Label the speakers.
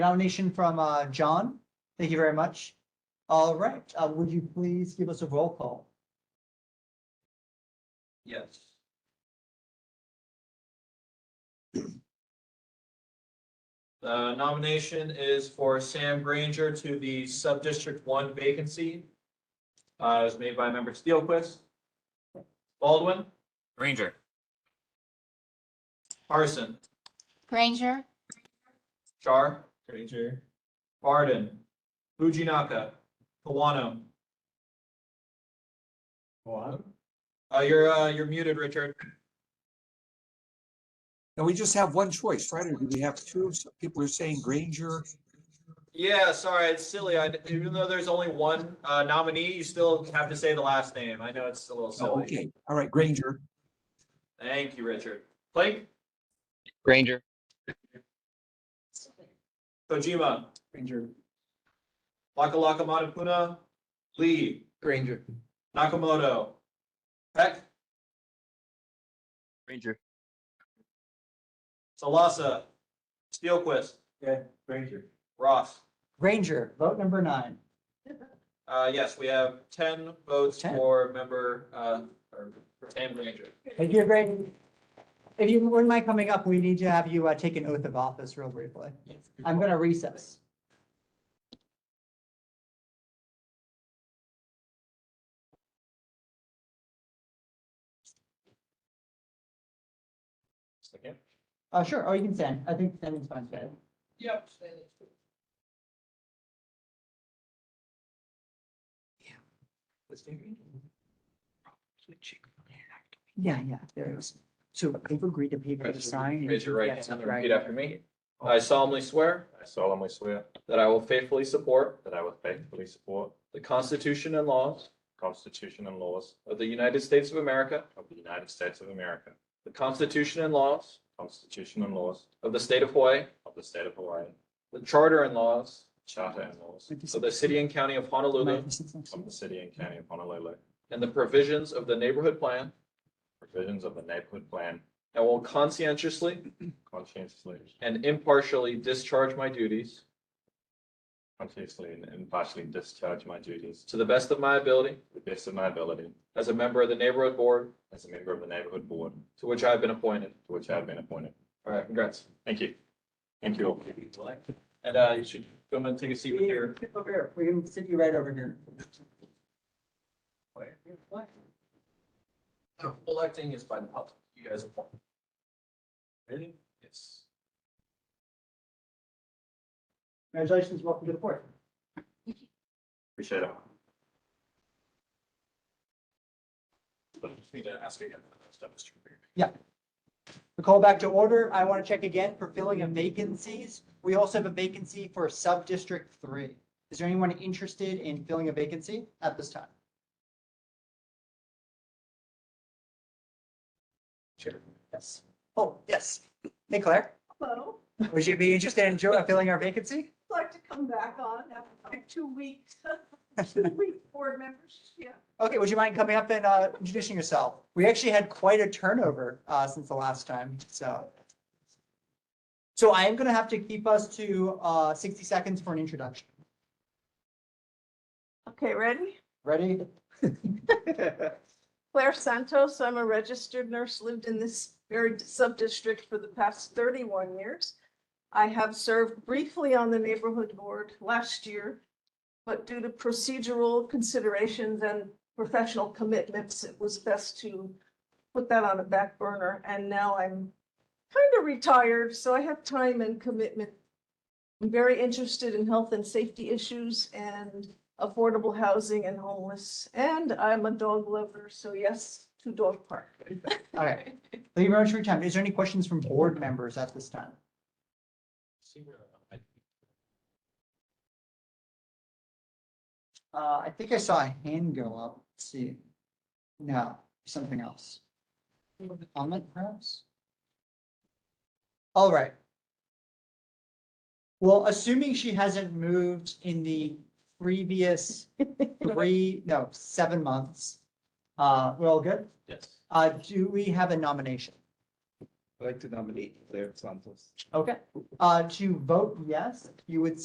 Speaker 1: Nomination from uh, John. Thank you very much. All right, uh, would you please give us a roll call?
Speaker 2: Yes. The nomination is for Sam Granger to the Subdistrict One vacancy. Uh, it was made by member Steelquist. Baldwin,
Speaker 3: Ranger.
Speaker 2: Parson,
Speaker 4: Granger,
Speaker 2: Char. Granger. Barden, Fujinaka, Kawano. Kawano? Uh, you're, uh, you're muted, Richard.
Speaker 5: And we just have one choice, right? Or do we have two? Some People are saying Granger.
Speaker 2: Yeah, sorry, it's silly. I, even though there's only one uh, nominee, you still have to say the last name. I know it's a little
Speaker 5: Oh,
Speaker 2: silly.
Speaker 5: okay. All right, Granger.
Speaker 2: Thank you, Richard. Blake,
Speaker 3: Ranger.
Speaker 2: Kojima. Ranger. Laka Laka Matapuna, Lee,
Speaker 6: Granger.
Speaker 2: Nakamoto, Peck,
Speaker 3: Ranger.
Speaker 2: Salasa, Steelquist. Yeah, Ranger. Ross.
Speaker 1: Granger, vote number nine.
Speaker 2: Uh, yes, we have ten votes
Speaker 1: 10.
Speaker 2: for member, uh, or for Sam Ranger.
Speaker 1: Thank you, Granger. If you wouldn't mind coming up, we need to have you uh, take an oath of office real briefly. I'm going to recess.
Speaker 2: Second.
Speaker 1: Uh, Sure, or you can stand. I think standing's fine.
Speaker 2: Yep.
Speaker 1: Yeah, yeah, there is. So they've agreed to pay for the sign.
Speaker 2: Raise your right hand and repeat after me. I solemnly swear
Speaker 6: I solemnly swear
Speaker 2: that I will faithfully support
Speaker 6: that I will faithfully support
Speaker 2: The Constitution and laws
Speaker 6: the Constitution and laws
Speaker 2: of the United States of America,
Speaker 6: of the United States of America,
Speaker 2: the Constitution and laws
Speaker 6: Constitution and laws
Speaker 2: of the state of Hawaii,
Speaker 6: of the State of Hawaii,
Speaker 2: the charter and laws
Speaker 6: Charter and laws
Speaker 2: of the city and county of Honolulu,
Speaker 6: of the City and County of Honolulu,
Speaker 2: and the provisions of the neighborhood plan,
Speaker 6: provisions of the Neighborhood Plan,
Speaker 2: and will conscientiously
Speaker 6: conscientiously,
Speaker 2: and impartially discharge my duties
Speaker 6: conscientiously and impartially discharge my duties
Speaker 2: to the best of my ability
Speaker 6: to the best of my ability
Speaker 2: as a member of the neighborhood board
Speaker 6: as a member of the Neighborhood Board
Speaker 2: to which I have been appointed.
Speaker 6: to which I have been appointed.
Speaker 2: All right, congrats.
Speaker 6: Thank you. Thank you all.
Speaker 2: And uh, you should come and take a seat with your,
Speaker 1: Over here. We can sit you right over here.
Speaker 2: electing is by the public. You guys appoint. Ready? Yes.
Speaker 1: Congratulations, welcome to the board.
Speaker 6: Appreciate it.
Speaker 2: Just Need to ask again. Step is true.
Speaker 1: The call back to order. I want to check again for filling of vacancies. We also have a vacancy for sub-district three. Is there anyone interested in filling a vacancy at this time?
Speaker 2: Sure.
Speaker 1: Yes. Oh, yes. Hey, Claire,
Speaker 7: Hello,
Speaker 1: would you be interested in jo- filling our vacancy?
Speaker 7: I'd like to come back on after two weeks, two week board members, yeah.
Speaker 1: Okay, would you mind coming up and uh, introducing yourself? We actually had quite a turnover uh, since the last time, so. So I am going to have to keep us to uh, 60 seconds for an introduction.
Speaker 7: Okay, ready?
Speaker 1: Ready?
Speaker 7: Claire Santos, I'm a registered nurse, lived in this very sub-district for the past thirty-one years. I have served briefly on the neighborhood board last year, but due to procedural considerations and professional commitments, it was best to put that on a back burner, and now I'm kind of retired, so I have time and commitment. I'm very interested in health and safety issues and affordable housing and homeless, and I'm a dog lover, so yes, to dog park.
Speaker 1: All right. Thank you very much for your time. Is there any questions from board members at this time? Uh, I think I saw a hand go up. Let's see. No, something else. Comment perhaps? All right. Well, assuming she hasn't moved in the previous three, no, seven months, uh, we're all good?
Speaker 2: Yes.
Speaker 1: Uh, do we have a nomination?
Speaker 4: I'd like to nominate Claire Santos.
Speaker 1: Okay, uh, to vote yes, you would